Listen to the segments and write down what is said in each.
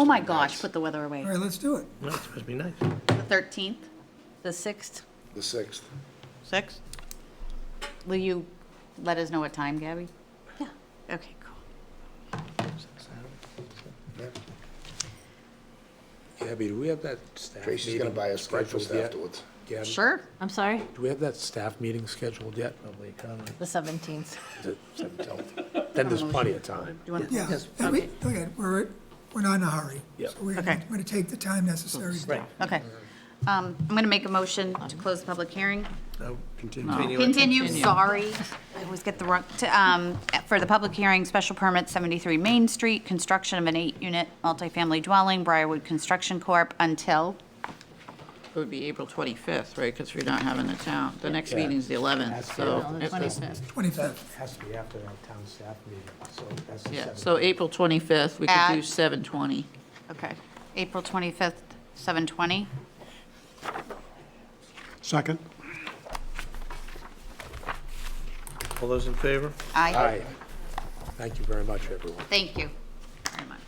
Oh my gosh, put the weather away. All right, let's do it. No, it's supposed to be nice. The 13th? The 6th, The 6th. 6? Will you let us know what time, Gabby? yeah, okay, cool. Gabby, do we have that staff meeting? Tracy's going to buy us breakfast scheduled yet? afterwards. Gabby, Sure. I'm sorry, Do we have that staff meeting scheduled yet? Probably can't. the 17th. Then there's plenty of time. Do you want Yeah. And we- Look at, we're, we're not in a hurry. Yep. So we're Okay. gonna, we're gonna take the time necessary. to- Okay. Um, I'm going to make a motion to close the public hearing. Continue. it. Continue, sorry. I always get the wrong, to, um, for the public hearing, special permit 73 Main Street, construction of an eight-unit multifamily dwelling, Briarwood Construction Corp., until, It would be April 25th, right, because we're not having the town, the next meeting's the 11th, so. if it's- 25th. Has to be after that town staff meeting, so that's the Yeah, seventh. so April 25th, we could do At- 7:20. okay, April 25th, 7:20. Second. All those in favor? Aye. Aye. Thank you very much, everyone. Thank you very much.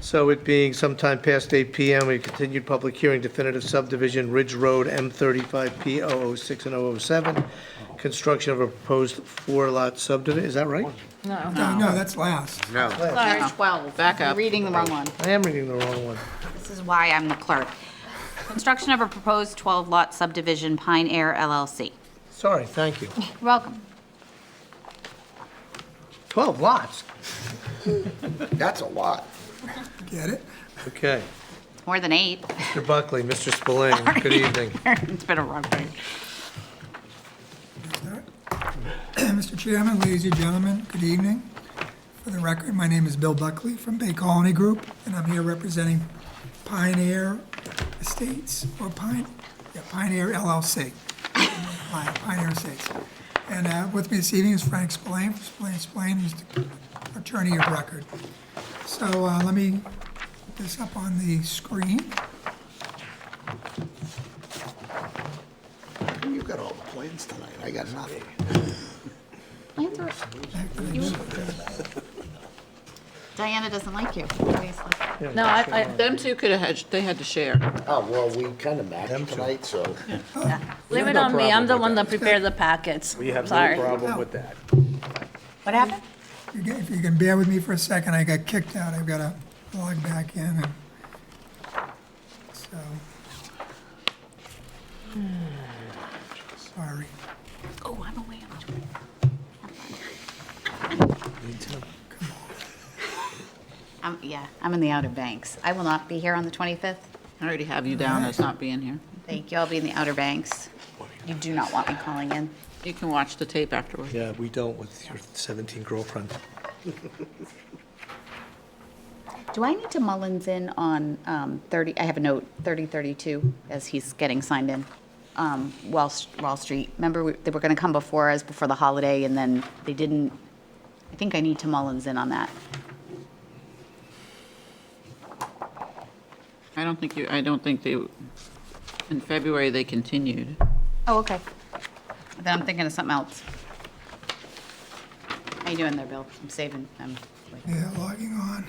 So it being sometime past 8 PM, we continued public hearing definitive subdivision Ridge Road M35P 006 and 007, construction of a proposed four-lot subdivision, is that right? No, no, that's last. Sorry, 12. Back You're up. Reading the wrong one. I am reading the wrong one. This is why I'm the clerk. Construction of a proposed 12-lot subdivision, Pine Air LLC. Sorry, thank you. You're Welcome. 12 lots? That's a lot. Get it? Okay. It's more than eight. Mr. Buckley, Mr. Spillane, good evening. It's been a rough day. Mr. Chairman, ladies and gentlemen, good evening. For the record, my name is Bill Buckley from Bay Colony Group, and I'm here representing Pioneer Estates, or Pine, yeah, Pioneer LLC. Pine- Pioneer Estates. And uh, with me this evening is Frank Spillane, from Spillane Spillane, who's the attorney of record. So uh, let me put this up on the screen. You got all the plans tonight. I got nothing. Plans are- Diana doesn't like you, obviously. No, I, I- them two could have had, they had to share. Oh, well, we kind of matched tonight, so. Blame it on me, I'm the one that prepared the packets. We have no Sorry. problem with that. What happened? You get- If you can bear with me for a second, I got kicked out, I've got to log back in, and, so. Sorry, Oh, I'm away on the 20th. Um, Yeah, I'm in the Outer Banks. I will not be here on the 25th. I already have you down as not being here. Thank you, I'll be in the Outer Banks. You do not want me calling in. You can watch the tape afterwards. Yeah, we don't with your 17 girlfriend. Do I need to Mullins in on um, 30, I have a note, 3032, as he's getting signed in, um, Wall, S- Wall Street? Remember, we- they were going to come before us, before the holiday, and then they didn't, I think I need to Mullins in on that. I don't think you, I don't think they, in February, they continued. Oh, okay. Then I'm thinking of something else. How you doing there, Bill? I'm saving, I'm, wait. yeah, logging on.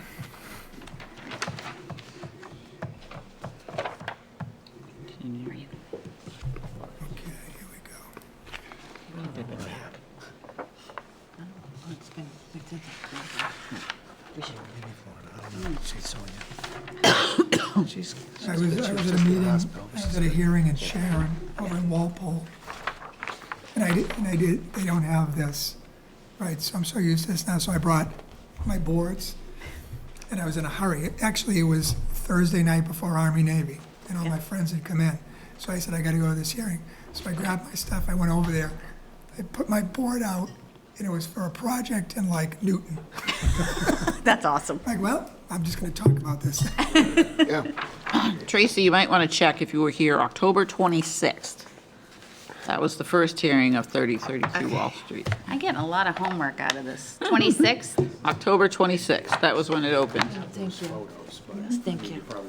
Continue. Where are you? Okay, here we go. I was, I was at a meeting, I was at a hearing in Sharon, over in Walpole. And I did, and I did, they don't have this, right, so I'm so used to this now, so I brought my boards. And I was in a hurry, actually, it was Thursday night before Army Navy, and all my friends had come in. So I said, I gotta go to this hearing. So I grabbed my stuff, I went over there, I put my board out, and it was for a project in like Newton. That's awesome. Like, well, I'm just gonna talk about this. Yeah. Tracy, you might want to check if you were here October 26th. That was the first hearing of 3032 Wall Street. I get a lot of homework out of this. 26th? October 26th, that was when it opened. Thank you. Yes, Thank you.